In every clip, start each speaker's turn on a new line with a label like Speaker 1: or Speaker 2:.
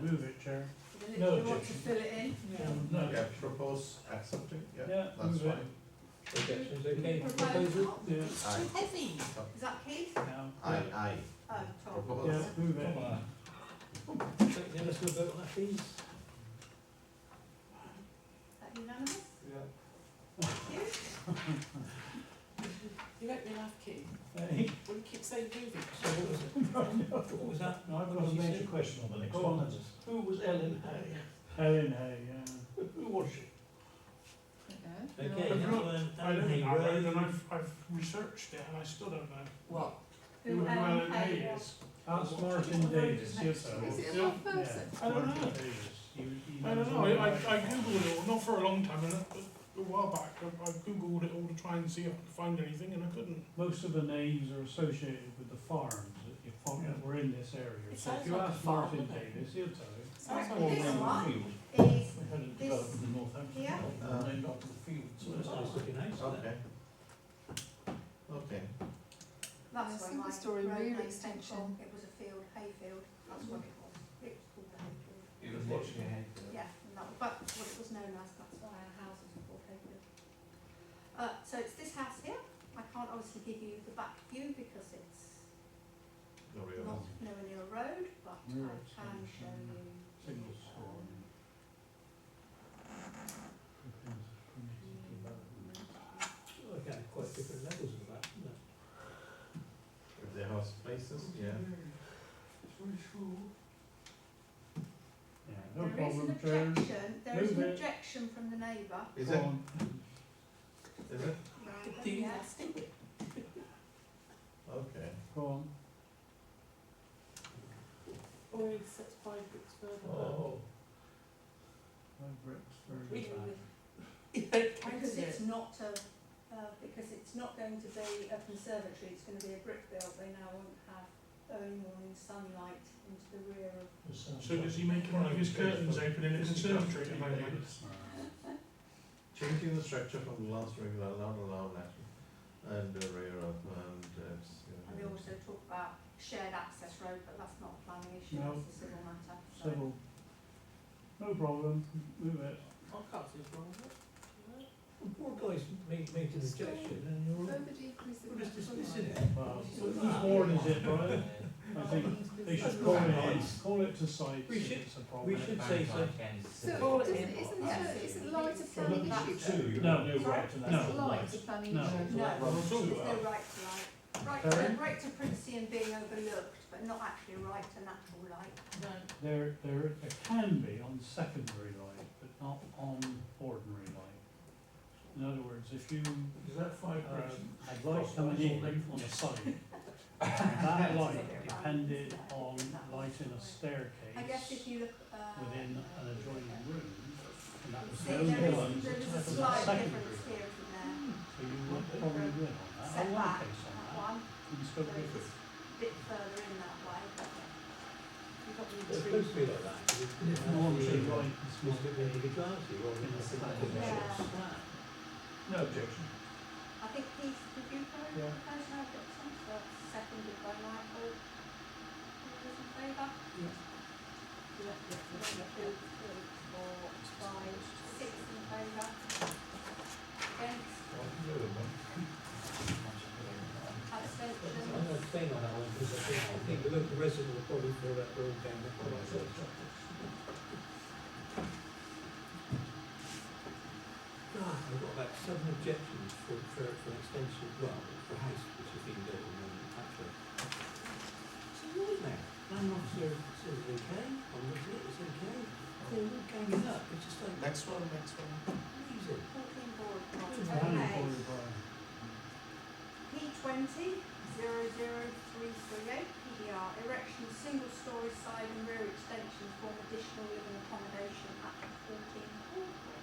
Speaker 1: Move it, Chair.
Speaker 2: Then if
Speaker 1: No
Speaker 2: you want to
Speaker 1: objection.
Speaker 2: fill it in,
Speaker 1: Um, no,
Speaker 3: Yeah, propose accepting, yeah,
Speaker 1: Yeah,
Speaker 3: that's
Speaker 1: move it.
Speaker 3: fine.
Speaker 4: Objections, okay,
Speaker 2: propose,
Speaker 4: proposal?
Speaker 2: oh,
Speaker 1: Yeah.
Speaker 2: it's too heavy. Is that Keith?
Speaker 1: Now,
Speaker 3: Aye, aye.
Speaker 2: Oh, Tom.
Speaker 3: Propose.
Speaker 1: yeah, move it.
Speaker 4: Come on. Okay, Now let's go vote on that, please.
Speaker 2: Is that unanimous?
Speaker 5: You make me laugh, Keith,
Speaker 1: Hey,
Speaker 5: when you keep saying move
Speaker 4: So
Speaker 5: it.
Speaker 4: what was it? What was that?
Speaker 1: now I've
Speaker 4: What
Speaker 1: got a
Speaker 4: did you
Speaker 1: major
Speaker 4: say?
Speaker 1: question on the next
Speaker 4: Go
Speaker 1: one.
Speaker 4: on.
Speaker 1: That's-
Speaker 4: Who was Ellen Hay?
Speaker 1: Helen Hay, yeah.
Speaker 4: Who was she? Okay,
Speaker 6: I've
Speaker 4: next
Speaker 6: got-
Speaker 4: one,
Speaker 6: I
Speaker 4: Ellen
Speaker 6: don't
Speaker 4: Hay
Speaker 6: think I read and
Speaker 4: Road.
Speaker 6: I've, I've researched it and I still don't know
Speaker 5: What?
Speaker 2: Who um, Ellen
Speaker 6: Ellen
Speaker 2: Hay
Speaker 6: Hay
Speaker 2: was.
Speaker 6: is.
Speaker 1: Ask Martin Davis, yes, I will.
Speaker 2: Is it
Speaker 6: Yeah.
Speaker 2: one person?
Speaker 1: Yeah,
Speaker 6: I don't
Speaker 1: Martin
Speaker 6: know.
Speaker 1: Davis. You- you
Speaker 6: I
Speaker 1: know
Speaker 6: don't know,
Speaker 1: all
Speaker 6: I, I
Speaker 1: about
Speaker 6: I
Speaker 1: it.
Speaker 6: googled it all, not for a long time, and a, a while back, I, I googled it all to try and see if I could find anything and I couldn't.
Speaker 1: Most of the names are associated with the farms that you farm that were in this area.
Speaker 5: It
Speaker 1: So if
Speaker 5: sounds
Speaker 1: you
Speaker 5: like a
Speaker 1: ask
Speaker 5: farm,
Speaker 1: Martin
Speaker 5: doesn't it?
Speaker 1: Davis, he'll tell you.
Speaker 2: Sounds
Speaker 1: Or
Speaker 2: like this
Speaker 1: named
Speaker 2: one.
Speaker 1: the field.
Speaker 2: Is,
Speaker 1: We had it
Speaker 2: This-
Speaker 1: developed in Northampton,
Speaker 2: yeah.
Speaker 1: and named after the field.
Speaker 4: So that's nice
Speaker 5: Oh.
Speaker 4: looking house, isn't it?
Speaker 3: Okay. Okay,
Speaker 2: that's
Speaker 5: I
Speaker 2: where
Speaker 5: think
Speaker 2: my
Speaker 5: the story
Speaker 2: road
Speaker 5: rear
Speaker 2: name came
Speaker 5: extension.
Speaker 2: from. It was a field, hayfield, that's what it was. It was called the hayfield.
Speaker 3: it was watching ahead.
Speaker 2: Yeah, and that, but what it was known as, that's why our houses were called Hayfield. Uh, so it's this house here, I can't obviously give you the back view because it's
Speaker 3: The real
Speaker 2: not
Speaker 3: one.
Speaker 2: nowhere near a road, but
Speaker 1: Rear
Speaker 2: I can show
Speaker 1: extension.
Speaker 2: you.
Speaker 1: Single story.
Speaker 4: Okay, quite different levels of that, isn't it?
Speaker 3: If the house places, yeah.
Speaker 1: Yeah, no
Speaker 2: There is an
Speaker 1: problem, Chair.
Speaker 2: objection, there is an
Speaker 1: Move it.
Speaker 2: objection from the neighbour.
Speaker 3: Is
Speaker 1: Go
Speaker 3: it,
Speaker 1: on.
Speaker 6: Oh.
Speaker 3: is it?
Speaker 2: Right,
Speaker 5: Do you
Speaker 2: yeah.
Speaker 3: Okay.
Speaker 1: Go on.
Speaker 5: Or except five bricks further up.
Speaker 3: Oh,
Speaker 1: My bricks are-
Speaker 5: We can- Can
Speaker 2: Because
Speaker 5: do
Speaker 2: it's
Speaker 5: it.
Speaker 2: not a, uh, because it's not going to be a conservatory, it's gonna be a brick build, they now won't have early morning sunlight into the rear of.
Speaker 6: So does he make one of his curtains open in a conservatory at the moment?
Speaker 3: changing the structure from the last regular allowed allowed action and the rear of and
Speaker 2: And we
Speaker 3: that's.
Speaker 2: also talk about shared access road, but that's not a planning issue,
Speaker 1: No.
Speaker 2: that's a civil matter, so.
Speaker 1: Civil. No problem, move it.
Speaker 5: I can't see what's wrong with it.
Speaker 4: Poor guy's made, made an objection and you're all. We'll just dismiss it.
Speaker 1: Well,
Speaker 4: It's
Speaker 1: whose
Speaker 4: not-
Speaker 1: board is it, Brian? I think they should call it, call it to site
Speaker 4: We
Speaker 1: if
Speaker 4: should-
Speaker 1: it's a problem.
Speaker 4: We should say so.
Speaker 7: So,
Speaker 5: isn't-
Speaker 7: isn't,
Speaker 5: isn't
Speaker 7: it, isn't light a planning issue?
Speaker 3: Two.
Speaker 1: No,
Speaker 7: It's
Speaker 1: no,
Speaker 7: light a planning
Speaker 1: No.
Speaker 7: issue.
Speaker 2: No,
Speaker 3: Well,
Speaker 2: there's
Speaker 3: two
Speaker 2: no
Speaker 3: are.
Speaker 2: right to light, right
Speaker 1: Sorry?
Speaker 2: to, right to privacy and being overlooked, but not actually a right to natural light.
Speaker 1: there, there, there can be on secondary light, but not on ordinary light. In other words, if you,
Speaker 4: Is that five
Speaker 1: um, had light coming in on a site, that light depended on light in a
Speaker 2: I guess if
Speaker 1: staircase
Speaker 2: you look, uh.
Speaker 1: within an adjoining room, and that was
Speaker 2: See,
Speaker 1: the
Speaker 2: there
Speaker 1: only
Speaker 2: is,
Speaker 1: one
Speaker 2: there
Speaker 1: that
Speaker 2: is a
Speaker 1: was
Speaker 2: slight
Speaker 1: a
Speaker 2: difference
Speaker 1: secondary.
Speaker 2: here and
Speaker 1: So you would probably win
Speaker 2: there,
Speaker 1: on that,
Speaker 2: set
Speaker 1: or one
Speaker 2: back,
Speaker 1: case
Speaker 2: that
Speaker 1: on
Speaker 2: one,
Speaker 1: that, you
Speaker 2: so
Speaker 1: still
Speaker 2: it's
Speaker 1: go for it.
Speaker 2: a bit further in that way, but you've got the
Speaker 4: It's supposed to be like that. 'cause it's-
Speaker 1: If normally light is
Speaker 4: It's
Speaker 1: not
Speaker 4: a bit of a glassy, rather than a flat.
Speaker 2: Yeah.
Speaker 3: No objection.
Speaker 2: I think these, did you propose,
Speaker 1: Yeah.
Speaker 2: propose an objection, so it's seconded by Michael. All those in favour?
Speaker 5: Yeah, yeah,
Speaker 2: One,
Speaker 5: yeah, yeah.
Speaker 2: two, three, four, five, six in favour. Against,
Speaker 4: I'm
Speaker 2: abstentions,
Speaker 4: not staying on that one because I think, I think the local resident will probably feel that we're all down the corner. God, I've got about seven objections for, for, for an extension, well, for a house which has been built in um, Hatfield. It's a nightmare. Land officer says it's okay, I'm looking at it, it's okay. They're all ganging up, it's just like
Speaker 3: Next one, next one.
Speaker 4: amazing.
Speaker 2: fourteen board,
Speaker 4: Yeah.
Speaker 2: not
Speaker 1: Planning
Speaker 2: okay.
Speaker 1: board, Brian.
Speaker 2: P twenty, zero zero three three eight, PDR, erection of single-story side and rear extensions form additional living accommodation at fourteen Hallway.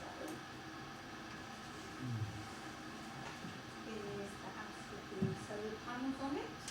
Speaker 2: So,
Speaker 1: Mm.
Speaker 2: here's the house with the solar panels on it.
Speaker 1: Mm-hmm.